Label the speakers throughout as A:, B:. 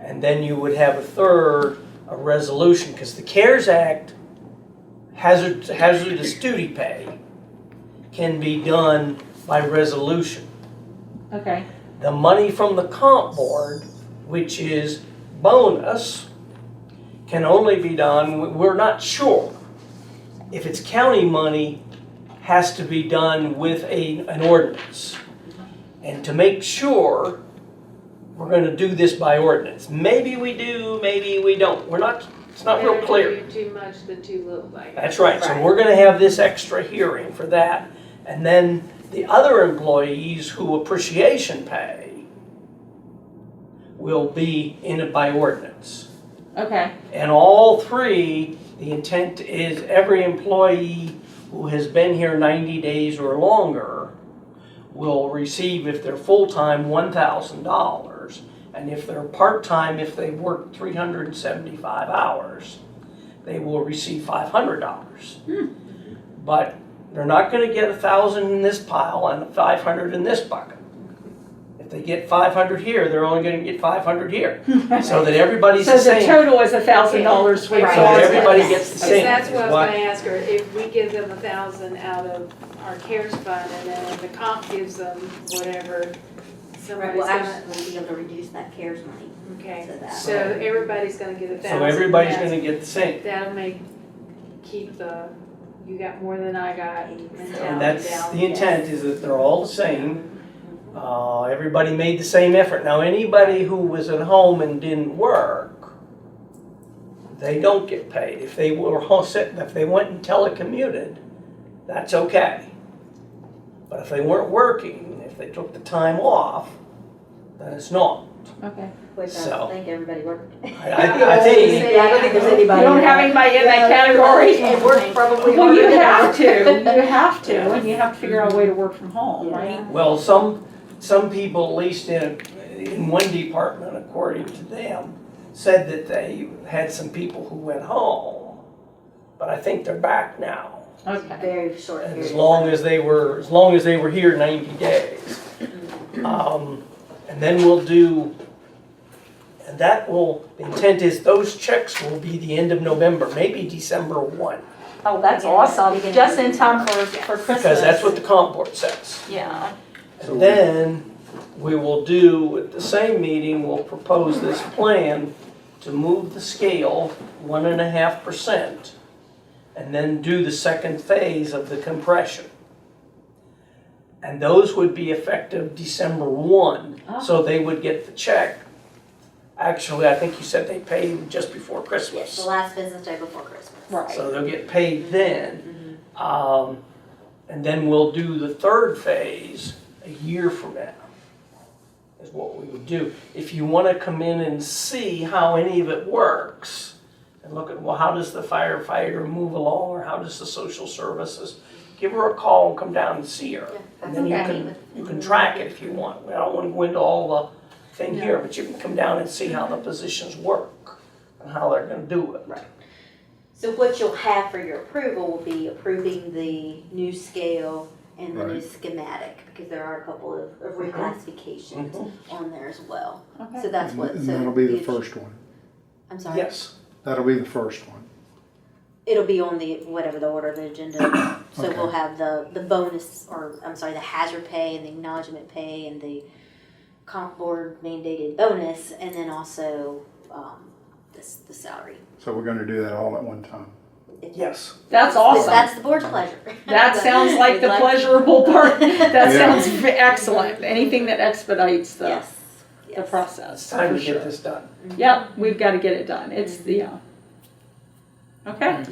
A: And then you would have a third, a resolution, because the CARES Act hazard, hazardous duty pay can be done by resolution.
B: Okay,
A: The money from the comp board, which is bonus, can only be done, we're not sure. If it's county money, has to be done with a, an ordinance. And to make sure, we're gonna do this by ordinance. Maybe we do, maybe we don't. We're not, it's not real clear.
C: Better to do too much than too little, I guess.
A: That's right, so
B: Right.
A: we're gonna have this extra hearing for that, and then the other employees who appreciation pay will be in it by ordinance.
B: okay,
A: And all three, the intent is every employee who has been here ninety days or longer will receive, if they're full-time, one thousand dollars. And if they're part-time, if they work three hundred and seventy-five hours, they will receive five hundred dollars. But they're not gonna get a thousand in this pile and five hundred in this bucket. If they get five hundred here, they're only gonna get five hundred here, so that everybody's
B: so
A: the
B: the
A: same.
B: total is a thousand dollars for
C: Right.
A: So
B: all.
A: that everybody gets the
C: Because
A: same.
C: that's
A: is
C: what I was
A: why-
C: gonna ask her, if we give them a thousand out of our CARES fund, and then the comp gives them whatever,
D: Right,
C: somebody's
D: we'll
C: gonna,
D: actually be able to reduce that CARES money
C: okay.
D: to that.
C: So everybody's gonna get a thousand.
A: So everybody's
C: That's-
A: gonna get the same.
C: That'll make, keep the, you got more than I got mentality down.
A: And that's, the
C: yes.
A: intent is that they're all the same. Uh, everybody made the same effort. Now, anybody who was at home and didn't work, they don't get paid. If they were home sick, if they went and telecommuted, that's okay. But if they weren't working, if they took the time off, then it's not.
B: Okay.
D: Which I
A: So.
D: don't think everybody worked.
A: I, I, I think,
D: Yeah, I don't think there's anybody.
B: You don't have anybody in that category?
D: It worked probably.
B: Well, you
D: harder than
B: have
D: ours.
B: to, you have to, and you have to figure out a way to work from home, right?
A: Well, some, some people, at least in, in one department, according to them, said that they had some people who went home. But I think they're back now,
B: Okay,
D: Very short period.
A: as long as they were, as long as they were here ninety days. Um, and then we'll do, and that will, the intent is those checks will be the end of November, maybe December one.
B: oh, that's awesome, just in time for, for Christmas.
A: Because that's what the comp board says.
B: Yeah,
E: So-
A: And then we will do, at the same meeting, we'll propose this plan to move the scale one and a half percent and then do the second phase of the compression. And those would be effective December one, so they would get the check. Actually, I think you said they paid just before
D: Yes,
A: Christmas.
D: the last business day before Christmas.
B: right,
A: So they'll get paid then. Um, and then we'll do the third phase a year from now. Is what we would do. If you wanna come in and see how any of it works, and look at, well, how does the firefighter move along, or how does the social services? Give her a call and come down and see her. And then you
D: Okay.
A: can, you can track it if you want. I don't wanna go into all the thing here, but you can come down and see how the positions work and how they're gonna do it.
D: So what you'll have for your approval will be approving the new scale and the new schematic, because there are a couple of of reclassifications
A: Mhm.
D: on there as well.
B: okay.
D: So that's what,
E: And
D: so.
E: that'll be the
D: if-
E: first one.
D: I'm sorry,
A: Yes.
E: That'll be the first one.
D: it'll be on the, whatever the order of the agenda, so
E: Okay.
D: we'll have the, the bonus, or, I'm sorry, the hazard pay and the acknowledgement pay and the comp board mandated bonus, and then also, um, this, the salary.
E: So we're gonna do that all at one time.
D: If-
A: Yes.
B: That's
D: But
B: awesome.
D: That's the board's pleasure.
B: That sounds like
D: We'd
B: the
D: like-
B: pleasurable part. That
E: Yeah.
B: sounds v- excellent. Anything that expedites the,
D: Yes.
B: the
D: yes.
B: process,
A: It's time
B: for
A: to get
B: sure.
A: this done.
B: Yep, we've got to get it done. It's
C: Mm-hmm.
B: the, uh, okay.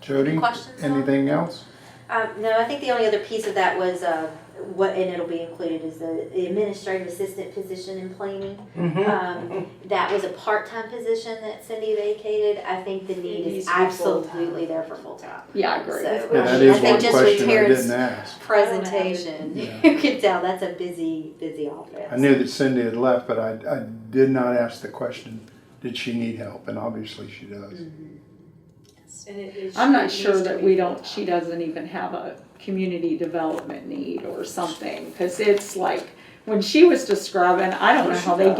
E: Jody,
D: Questions on-
E: anything else?
D: Um, no, I think the only other piece of that was, uh, what, and it'll be included, is the the administrative assistant position in planning. Um, that was a part-time position that Cindy vacated. I think the need
C: It needs
D: is
C: to be full-time.
D: absolutely there for full-time.
B: Yeah, I agree.
D: So,
E: Yeah,
D: I
E: that
D: mean,
E: is
D: I think
E: one
D: just
E: question
D: with
E: I
D: Terrence's
E: didn't ask.
D: Presentation,
E: Yeah.
D: you can tell that's a busy, busy office.
E: I knew that Cindy had left, but I, I did not ask the question, did she need help? And obviously she does.
C: And it- it
B: I'm not
C: needs
B: sure
C: to
B: that
C: be
B: we don't, she doesn't even have a community development need or something, because it's like, when she was describing, I don't know how they